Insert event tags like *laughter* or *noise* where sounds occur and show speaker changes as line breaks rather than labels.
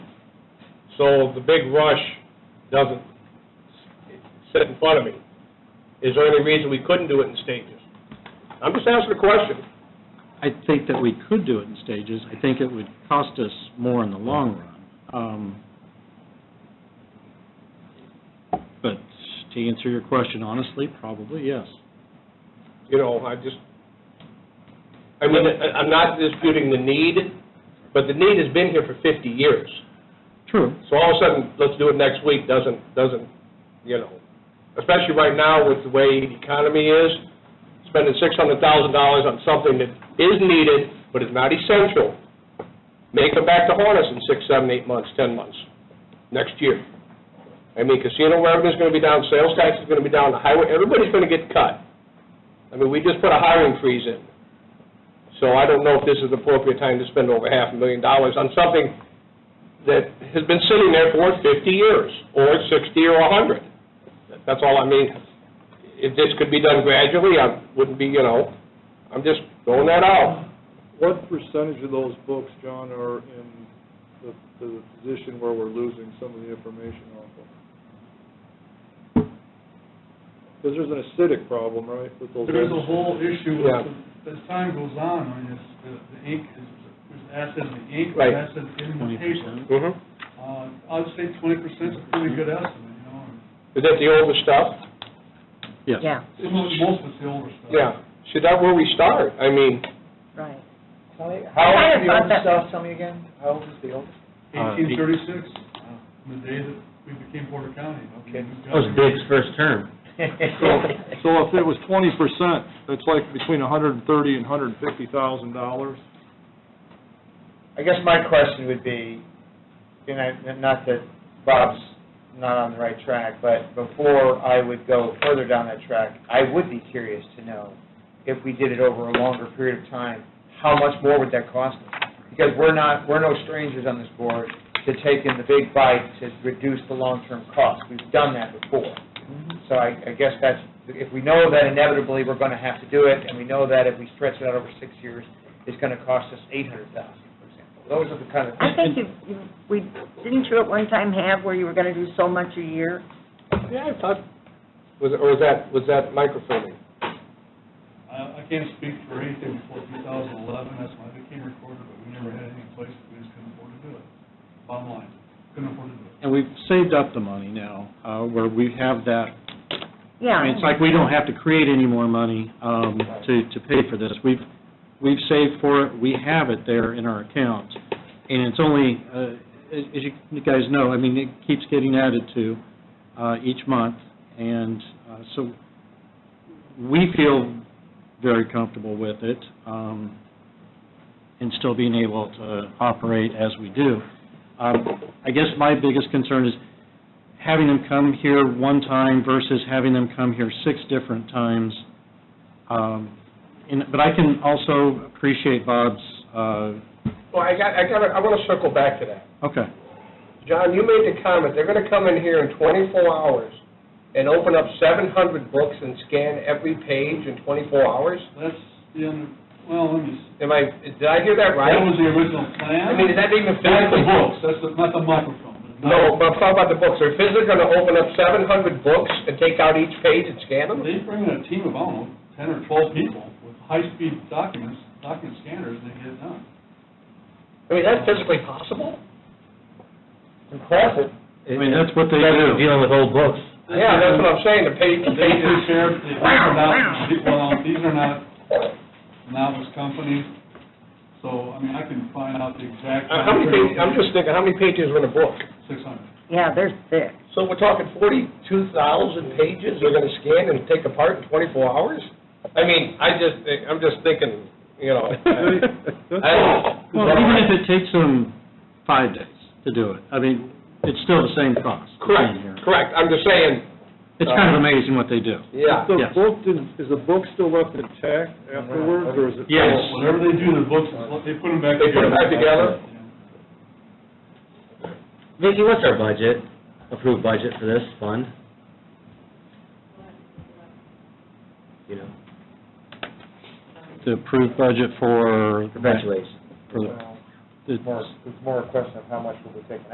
So the big rush doesn't sit in front of me. Is there any reason we couldn't do it in stages? I'm just asking a question.
I think that we could do it in stages. I think it would cost us more in the long run. Um, But to answer your question honestly, probably yes.
you know, I just, I mean, I- I'm not disputing the need, but the need has been here for 50 years.
True.
So all of a sudden, let's do it next week, doesn't, doesn't, you know, especially right now with the way the economy is, spending $600,000 on something that is needed but is not essential, may come back to haunt us in six, seven, eight months, 10 months, next year. I mean, casino revenue's going to be down, sales tax is going to be down, the highway, everybody's going to get cut. I mean, we just put a hiring freeze in. So I don't know if this is the appropriate time to spend over half a million dollars on something that has been sitting there for 50 years, or 60, or 100. That's all I mean. If this could be done gradually, I wouldn't be, you know, I'm just throwing that out.
What percentage of those books, John, are in the, the position where we're losing some of the information off of? Because there's an acidic problem, right, with those?
There's a whole issue,
Yeah.
with- as time goes on, I mean, it's, the- the ink is, there's assets in the ink,
Right.
there's assets in the
20%.
paper.
Mm-hmm.
Uh, I'd say twenty percent's a pretty good estimate, you know, and
Is that the older stuff?
Yes.
Yeah,
some of, most of it's the older stuff.
Yeah. See, that where we start. I mean,
right.
Tell me,
I
how old is
kinda
the
thought
old
that-
stuff, tell me again, how old is the old?
Uh,
Eighteen thirty-six, uh, the day that we became Porter County.
Okay.
That
first term.
So, so if it was twenty percent, that's like between a hundred and thirty and hundred and fifty thousand dollars.
I guess my question would be, and I, not that Bob's not on the right track, but before I would go further down that track, I would be curious to know, if we did it over a longer period of time, how much more would that cost us? Because we're not, we're no strangers on this board to taking the big bite to reduce the long-term cost. We've done that before.
Mm-hmm.
So I, I guess that's, if we know that inevitably we're gonna have to do it, and we know that if we stretch it out over six years, it's gonna cost us eight hundred thousand, for example. Those are the kind of
I
things.
think you, you- we, didn't you at one time have where you were going to do so much a year?
yeah, I thought, was, or was that, was that microfilming?
I, I can't speak for anything before two thousand eleven, that's why I became recorder, but we never had any place, that we just couldn't afford to do it. Bottom line, couldn't afford to do it.
And we've saved up the money now, uh, where we have that,
Yeah.
I mean, it's like we don't have to create any more money um, to, to pay for this. We've, we've saved for it, we have it there in our accounts. And it's only, uh, as as you- you guys know, I mean, it keeps getting added to uh, each month. And uh, so we feel very comfortable with it um, and still being able to operate as we do. Um, I guess my biggest concern is having them come here one time versus having them come here six different times. Um, and- But I can also appreciate Bob's, uh,
Well, I got, I got, I want to circle back to that.
okay,
John, you made the comment, they're going to come in here in 24 hours and open up 700 books and scan every page in 24 hours?
That's the, un- well, let me, s-
Am I, did I hear that right?
that was the original plan.
I mean, is that even
That's the
physically?
books, that's the, not the microphone.
No, but I'm talking about the books. Are physically going to open up 700 books and take out each page and scan them?
They bring in a team of, I don't know, ten or twelve people with high-speed documents, document scanners, and they get it done.
I mean, that's physically possible?
Impressive.
I mean, that's what they do.
with old books.
Yeah, that's what I'm saying, the page, the
They
pages.
prepare, they print it out, and see- well, these are not novice companies, so, I mean, I can find out the exact.
Uh, How many pages, I'm just thinking, how many pages are in a book?
Six hundred.
Yeah, they're thick.
So we're talking 42,000 pages they're going to scan and take apart in 24 hours? I mean, I just, think- I'm just thinking, you know. I-
*laughs*
I-
*laughs* Well, even if it takes them five days to do it, I mean, it's still the same cost. being here.
Correct, correct. I'm just saying,
It's kind of amazing what they do.
yeah.
Is the
Yes.
book, is the book still left intact afterwards, or is it?
Yes.
Whatever they do, the books, they put them back
They put
together.
them back together?
Vicki, what's our budget, approved budget for this fund? You know,
The approved budget for.
perpetuates.
for the-
Well, More, it's more a question of how much will be taken